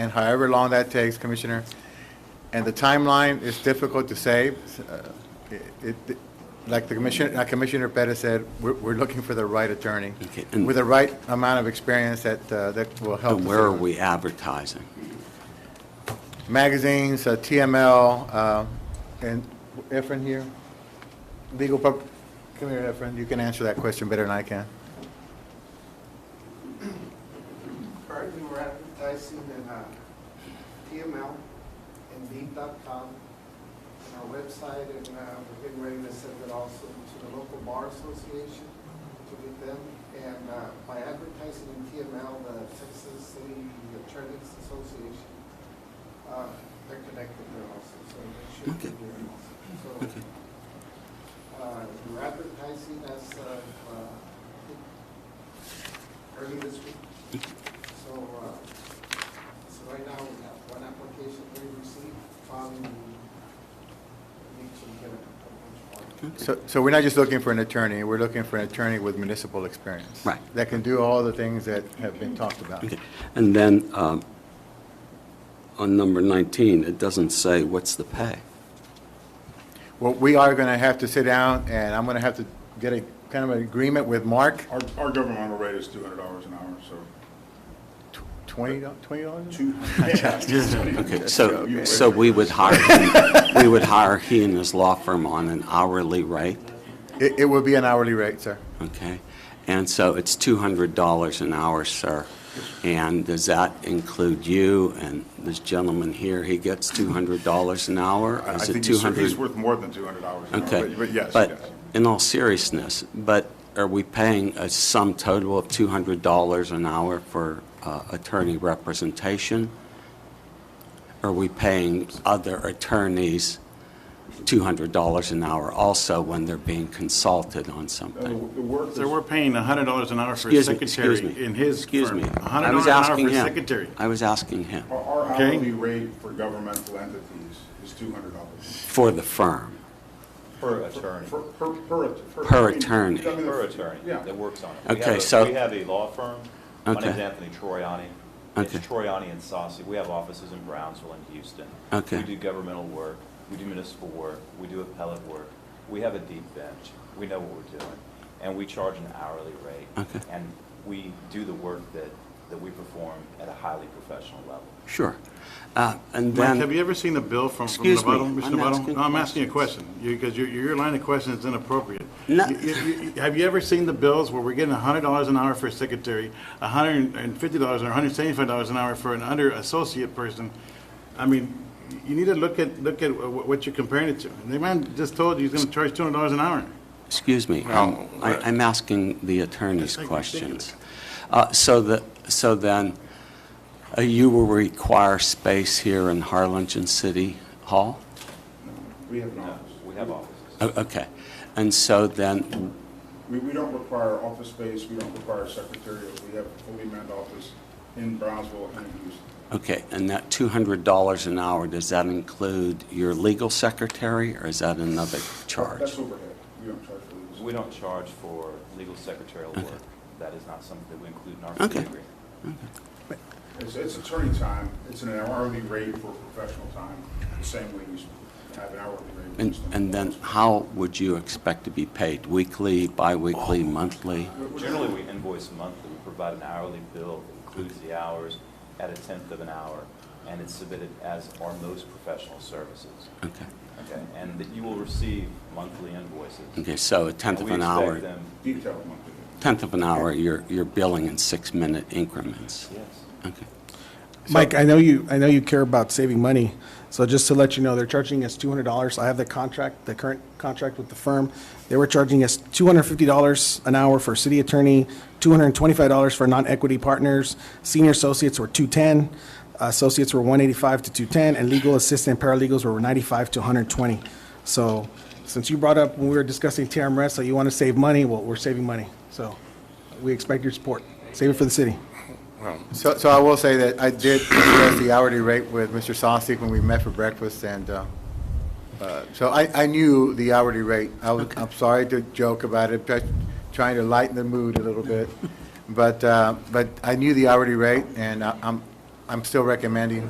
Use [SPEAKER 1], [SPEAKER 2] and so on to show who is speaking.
[SPEAKER 1] and however long that takes, Commissioner. And the timeline is difficult to say. Uh, it- it- Like the Commissioner, like Commissioner Pettis said, we're, we're looking for the right attorney
[SPEAKER 2] Okay, and-
[SPEAKER 1] with the right amount of experience that, uh, that will help.
[SPEAKER 2] And
[SPEAKER 1] the
[SPEAKER 2] where are
[SPEAKER 1] city.
[SPEAKER 2] we advertising?
[SPEAKER 1] Magazines, uh, TML, uh, and Efren here. Legal, pub- come here, Efren, you can answer that question better than I can.
[SPEAKER 3] Currently, we're advertising in uh, TML, Indeed.com, and our website, and uh, we're getting ready to send it also to the local bar association to get them. And uh, by advertising in TML, the Texas City Attorneys Association, uh, they're connected there also, so they should be
[SPEAKER 2] Okay.
[SPEAKER 3] there also. So uh, we're advertising as uh, uh, early this week. So, uh, so right now, we have one application we received, following, we need to get a couple more.
[SPEAKER 1] So, so we're not just looking for an attorney, we're looking for an attorney with municipal experience.
[SPEAKER 2] Right.
[SPEAKER 1] That can do all the things that have been talked about.
[SPEAKER 2] Okay. And then, um, on number 19, it doesn't say what's the pay.
[SPEAKER 1] Well, we are going to have to sit down, and I'm going to have to get a, kind of an agreement with Mark,
[SPEAKER 4] Our, our governmental rate is two hundred dollars an hour, so
[SPEAKER 1] twenty, do- twenty dollars?
[SPEAKER 4] two.
[SPEAKER 2] Okay, so, so we would hire, him- we would hire he and his law firm on an hourly rate,
[SPEAKER 1] It, it will be an hourly rate, sir.
[SPEAKER 2] okay? And so it's $200 an hour, sir. And does that include you and this gentleman here, he gets $200 an hour?
[SPEAKER 4] I I
[SPEAKER 2] Is it
[SPEAKER 4] think he's he's
[SPEAKER 2] 200?
[SPEAKER 4] worth more than two hundred dollars an hour,
[SPEAKER 2] Okay.
[SPEAKER 4] but- but yes,
[SPEAKER 2] But
[SPEAKER 4] yes.
[SPEAKER 2] in all seriousness, but are we paying a sum total of $200 an hour for uh, attorney representation? Are we paying other attorneys $200 an hour also when they're being consulted on
[SPEAKER 4] Uh, The the
[SPEAKER 2] something?
[SPEAKER 4] work,
[SPEAKER 5] So
[SPEAKER 4] that's-
[SPEAKER 5] we're paying hundred dollars an hour for a
[SPEAKER 2] Excuse me,
[SPEAKER 5] secretary
[SPEAKER 2] excuse me,
[SPEAKER 5] in his
[SPEAKER 2] Excuse
[SPEAKER 5] firm.
[SPEAKER 2] me. I
[SPEAKER 5] hundred dollars
[SPEAKER 2] was
[SPEAKER 5] an hour
[SPEAKER 2] asking
[SPEAKER 5] for a
[SPEAKER 2] him.
[SPEAKER 5] secretary.
[SPEAKER 2] I was asking him,
[SPEAKER 4] our our
[SPEAKER 5] Okay.
[SPEAKER 4] hourly rate for governmental entities is two hundred dollars.
[SPEAKER 2] for the firm.
[SPEAKER 6] Per attorney.
[SPEAKER 4] Per, per, per.
[SPEAKER 2] Per
[SPEAKER 4] I mean,
[SPEAKER 2] attorney.
[SPEAKER 4] I mean,
[SPEAKER 6] Per attorney
[SPEAKER 4] Yeah.
[SPEAKER 6] that works on it. We
[SPEAKER 2] Okay,
[SPEAKER 6] have a-
[SPEAKER 2] so-
[SPEAKER 6] We have a law firm. My
[SPEAKER 2] Okay.
[SPEAKER 6] name's Anthony Troiani. It's
[SPEAKER 2] Okay.
[SPEAKER 6] Troiani and Saucy. We have offices in Brownsville and Houston.
[SPEAKER 2] Okay.
[SPEAKER 6] We do governmental work, we do municipal work, we do appellate work. We have a deep bench. We know what we're doing. And we charge an hourly rate.
[SPEAKER 2] Okay.
[SPEAKER 6] And we do the work that, that we perform at a highly professional level.
[SPEAKER 2] Sure. Uh, And
[SPEAKER 5] Mike,
[SPEAKER 2] then...
[SPEAKER 5] have you ever seen a bill from, from
[SPEAKER 2] Excuse me,
[SPEAKER 5] Novato, Mr.
[SPEAKER 2] I'm asking
[SPEAKER 5] Novato? No, I'm asking you a question, because your, your line of question is inappropriate.
[SPEAKER 2] No.
[SPEAKER 5] You- you- you- Have you ever seen the bills where we're getting hundred dollars an hour for a secretary, hundred and fifty dollars or hundred seventy-five dollars an hour for an under associate person? I mean, you need to look at, look at wh- what you're comparing it to. And the man just told you he's gonna charge two hundred dollars an hour.
[SPEAKER 2] Excuse me, um, I- I'm asking the attorney's
[SPEAKER 5] That's like
[SPEAKER 2] questions. Uh, So the, so then, uh, you will require space here in Harlingen City Hall?
[SPEAKER 4] We have an
[SPEAKER 6] No,
[SPEAKER 4] office.
[SPEAKER 6] We have offices.
[SPEAKER 2] O- Okay, and so then,
[SPEAKER 4] We, we don't require office space, we don't require secretarial, we have a fully manned office in Brownsville and in Houston.
[SPEAKER 2] okay, and that $200 an hour, does that include your legal secretary, or is that another charge?
[SPEAKER 4] That's overhead, we don't charge for these.
[SPEAKER 6] We don't charge for legal secretarial work. That is not something that we include in our fee
[SPEAKER 2] Okay.
[SPEAKER 6] agreement.
[SPEAKER 4] It's, it's attorney time, it's an hourly rate for professional time, the same way we have an hourly rate. for
[SPEAKER 2] And
[SPEAKER 4] just-
[SPEAKER 2] and then, how would you expect to be paid? Weekly,
[SPEAKER 6] Oh.
[SPEAKER 2] biweekly, monthly?
[SPEAKER 6] Generally, we invoice monthly, we provide an hourly bill that includes the hours at a tenth of an hour, and it's submitted as our most professional services.
[SPEAKER 2] Okay,
[SPEAKER 6] Okay, and that you will receive monthly invoices.
[SPEAKER 2] okay, so a tenth of
[SPEAKER 6] And
[SPEAKER 2] an
[SPEAKER 6] we
[SPEAKER 2] hour.
[SPEAKER 6] expect them-
[SPEAKER 4] Detailed monthly.
[SPEAKER 2] tenth of an hour, you're, you're billing in six-minute increments.
[SPEAKER 6] Yes.
[SPEAKER 2] Okay.
[SPEAKER 7] Mike, I know you, I know you care about saving money, so just to let you know, they're charging us two hundred dollars. I have the contract, the current contract with the firm. They were charging us two hundred fifty dollars an hour for city attorney, two hundred and twenty-five dollars for non-equity partners. Senior associates were two-ten, associates were one eighty-five to two-ten, and legal assistant paralegals were ninety-five to hundred and twenty. So, since you brought up when we were discussing TRMS, so you want to save money, well, we're saving money. So, we expect your support. Save it for the city.
[SPEAKER 1] So, so I will say that I did discuss the hourly rate with Mr. Sosnick when we met for breakfast, and, uh, uh, so I, I knew the hourly rate. I was, I'm sorry to joke about it, but trying to lighten the mood a little bit, but, uh, but I knew the hourly rate, and I- I'm, I'm still recommending